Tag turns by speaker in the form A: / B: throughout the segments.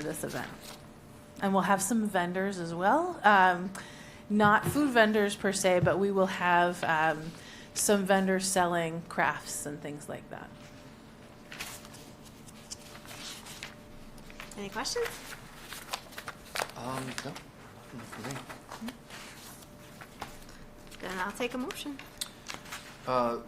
A: for this event. And we'll have some vendors as well. Um, not food vendors per se, but we will have um, some vendors selling crafts and things like that.
B: Any questions?
C: Um, no. not for me.
B: Then I'll take a motion.
C: Uh,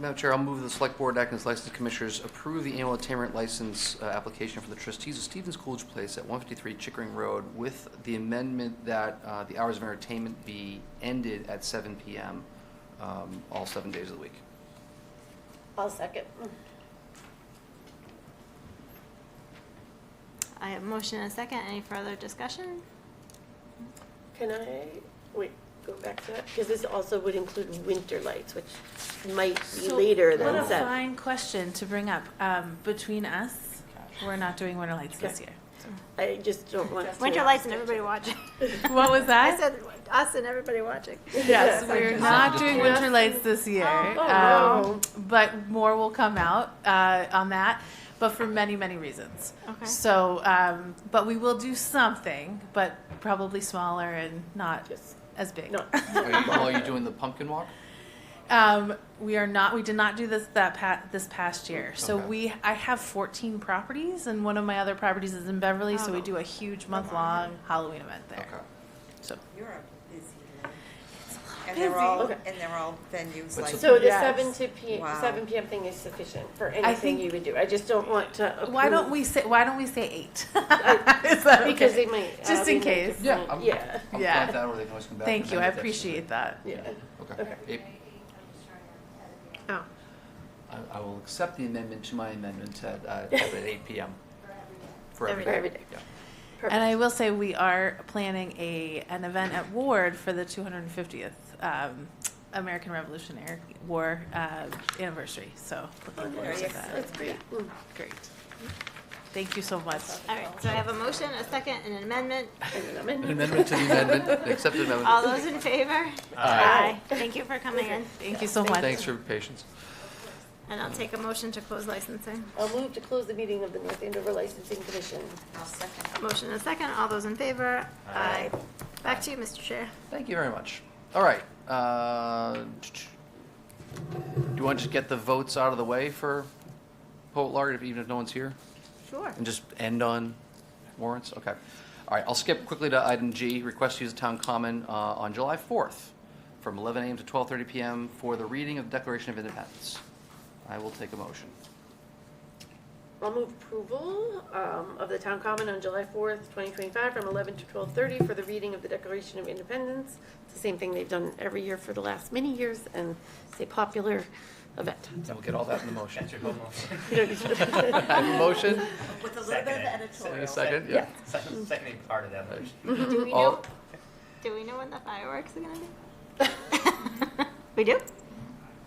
C: Madam Chair, I'll move the Select Board acting as licensed commissioners approve the annual attainment license uh, application for the trustees of Stevens Coolidge Place at 153 Chickering Road with the amendment that uh, the hours of entertainment be ended at 7 PM um, all seven days of the week.
D: I'll second.
B: I have motion and a second. Any further discussion?
D: Can I, wait, go back to that? Because this also would include winter lights, which might be later
A: What
D: than
A: a
D: seven.
A: fine question to bring up. Um, between us, we're not doing winter lights this
D: Okay.
A: year.
D: I just don't want to.
B: Winter lights and everybody watching.
A: What was
B: I
A: that?
B: said us and everybody watching.
A: Yes, we're not doing winter lights this year.
D: Oh,
A: Um, But more will come out uh, on that, but for many, many reasons.
B: Okay.
A: So, um, but we will do something, but probably smaller and not
D: Just
A: as big.
D: not.
C: Are you- Are you doing the pumpkin walk?
A: Um, we are not. We did not do this that pa- this past year. So
C: Okay.
A: we, I have 14 properties, and one of my other properties is in Beverly. So we
B: Oh.
A: do a huge month long Halloween event there.
C: Okay.
A: So
E: Europe is busy. And they're all,
D: Okay.
E: and they're all venues
C: But
E: like.
D: So the
A: Yes.
D: seven to P,
E: Wow.
D: seven PM thing is sufficient for anything
A: think-
D: you would do. I just don't want to.
A: why don't
D: approve-
A: we say why don't we say eight? Is that
D: Because
A: okay?
D: they might. uh,
A: Just in
D: be
A: case.
D: different.
C: I'm-
D: Yeah,
C: I'm fine
A: Yeah.
C: with that, or they can always come back.
A: Thank
C: and
A: you. I
C: amend it.
A: appreciate that.
D: yeah.
C: Okay. It-
B: Oh,
C: I- I will accept the amendment to my amendment at uh, at 8 PM. For every day.
D: Every day. Every day.
C: Yeah.
A: And I will say we are planning a an event at Ward for the 250th um, American Revolutionary War uh, anniversary. So looking forward to that.
D: Oh, That's great. Mm.
A: Great. Thank you so much.
B: all right. So I have a motion, a second, and an amendment.
D: And an
C: An
D: amendment.
C: amendment to the amendment, an accepted amendment.
B: All those in favor?
D: Aye.
B: Thank you for coming in.
A: Thank you so much.
C: Thanks for your patience.
B: And I'll take a motion to close licensing.
D: I'll move to close the meeting of the North Andover Licensing Commission.
E: I'll second.
B: Motion and a second. All those in favor? Aye. Back to you, Mr. Chair.
C: Thank you very much. All right. uh, Do you want to get the votes out of the way for poet laureate, even if no one's here?
B: Sure.
C: And just end on warrants? Okay. All right, I'll skip quickly to item G, request to use the town common uh, on July 4th from 11 a.m. to 12:30 p.m. for the reading of Declaration of Independence. I will take a motion.
D: I'll move approval um, of the town common on July 4th, 2025, from 11 to 12:30 for the reading of the Declaration of Independence. It's the same thing they've done every year for the last many years, and it's a popular event.
C: And we'll get all that in the motion.
F: your home office.
C: I have a motion
E: With a little bit of
F: Second.
C: and
E: editorial.
C: a second, yeah.
F: Second, second part of that motion.
B: Do we know,
C: All-
B: do we know when the fireworks are gonna be? We do?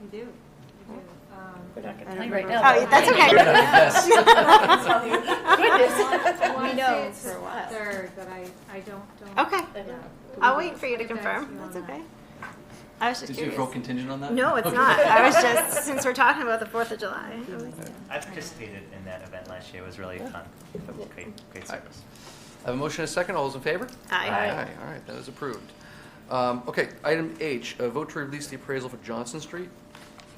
G: We do. We do. Um,
D: We're not going
G: I
D: to
G: don't
D: right
G: know.
D: now.
B: Oh, that's okay.
C: Yes.
G: I want to say
B: know
G: it's the third, but I, I don't, don't.
B: Okay.
G: yeah.
B: I'll wait for you to
G: Get back
B: confirm.
G: you on
B: That's
G: that.
B: okay. I was just
C: Did you
B: curious.
C: vote contingent on that?
B: No, it's not. I was just, since we're talking about the Fourth of July. I was-
F: I participated in that event last year. It was really fun. Great, great service.
C: I have a motion and a second. All those in favor?
B: Aye.
C: All right, that is approved. Um, Okay, item H, uh, vote to release the appraisal for Johnson Street.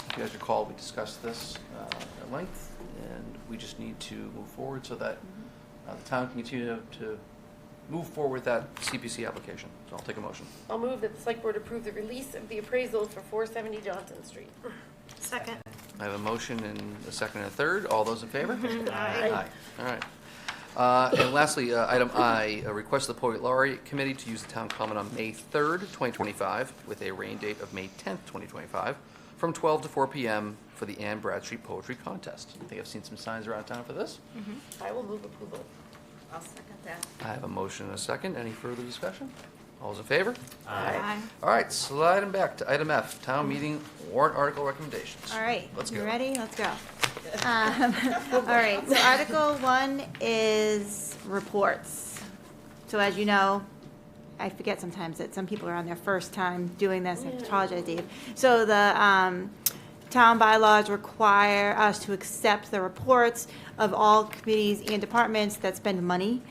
C: If you guys recall, we discussed this uh, at length, and we just need to move forward so that uh, the town can continue to- to move forward with that CPC application. So I'll take a motion.
D: I'll move that the select board approve the release of the appraisal for 470 Johnson Street.
B: Second.
C: I have a motion and a second and a third. All those in favor?
D: Aye.
C: Aye, all right. Uh, And lastly, uh, item I, a request of the Poet Laureate Committee to use the town common on May 3rd, 2025, with a rain date of May 10th, 2025, from 12 to 4 PM for the Anne Bradstreet Poetry Contest. I think I've seen some signs around town for this.
B: Mm-hmm.
D: I will move approval.
E: I'll second that.
C: I have a motion and a second. Any further discussion? All those in favor?
F: Uh,
B: Aye.
C: All right, sliding back to item F, town meeting warrant article recommendations.
B: All right,
C: Let's
B: you
C: go.
B: ready? Let's go. Um, All right, so Article One is reports. So as you know, I forget sometimes that some people are on their first time doing this, I apologize, Dave. So the um, town bylaws require us to accept the reports of all committees and departments that spend money.